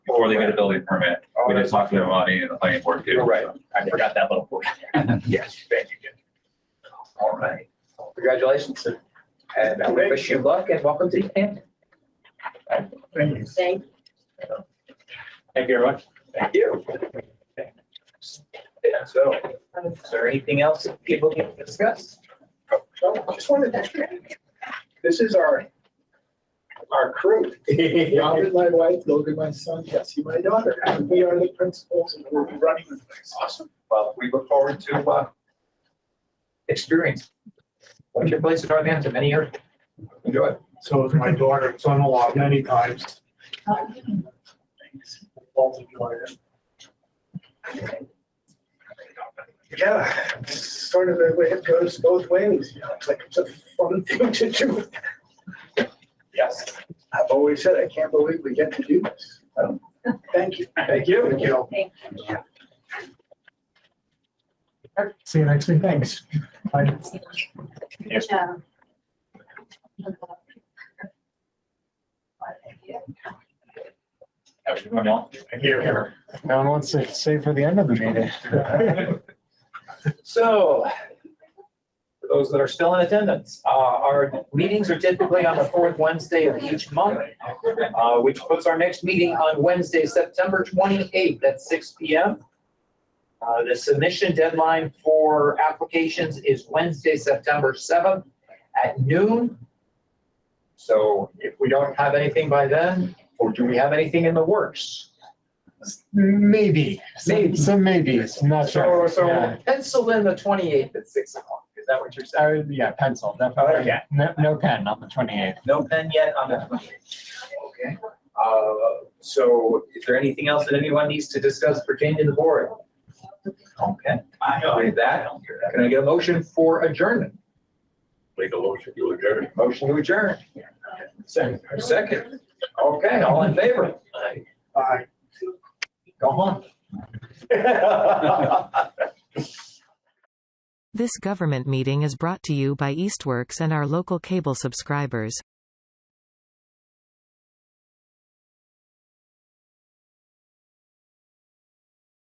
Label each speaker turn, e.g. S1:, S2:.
S1: before they get a building permit.
S2: Oh,
S1: We just talked to their money and the planning board too.
S2: Right.
S3: I forgot that little portion. Yes, thank you. Jim. All right.
S2: Congratulations. And I wish you luck and welcome to Camden.
S4: Thank
S3: Thank you, everyone.
S2: Thank you. Yeah, so is there anything else that people can discuss?
S5: So, Just wanted to, this is our, our crew. Robert, my wife, Logan, my son, Jesse, my daughter, and we are the principals and we're running the place.
S2: Awesome. Well, we look forward to, uh, experience. What's your place in Northampton? Many years. Enjoy. it.
S5: So is my daughter, and son-in-law many times. Both enjoy it. Yeah, it's sort of the way it goes both ways, you know, it's like, it's a fun thing to do.
S2: Yes.
S5: I've always said, I can't believe we get to do this. Um, Thank you.
S2: Thank you.
S5: Thank you.
S4: you.
S5: See you next week. Thanks. Bye.
S3: Yes.
S4: Um,
S3: Everyone else?
S5: Here.
S6: No one wants to save for the end of the meeting.
S2: So, for those that are still in attendance, uh, our meetings are typically on the fourth Wednesday of each month, uh, which puts our next meeting on Wednesday, September twenty-eighth at six P M. Uh, the submission deadline for applications is Wednesday, September seventh at noon. So if we don't have anything by then, or do we have anything in the works?
S6: Maybe,
S2: Maybe.
S6: some, some maybes, not
S2: So,
S6: sure.
S2: so
S6: Yeah.
S2: pencil in the twenty-eighth at six o'clock, is that what you're saying?
S6: I would- yeah, pencil, definitely.
S2: Okay.
S6: No, no pen on the twenty-eighth.
S2: No pen yet on that. Okay. Uh, So is there anything else that anyone needs to discuss pertaining to the board? Okay. With that, can I get a motion for adjournment?
S1: Make a motion to adjourn.
S2: Motion to adjourn. Second. Second. Okay, all in favor?
S5: Bye.
S2: Go on.
S7: This government meeting is brought to you by Eastworks and our local cable subscribers.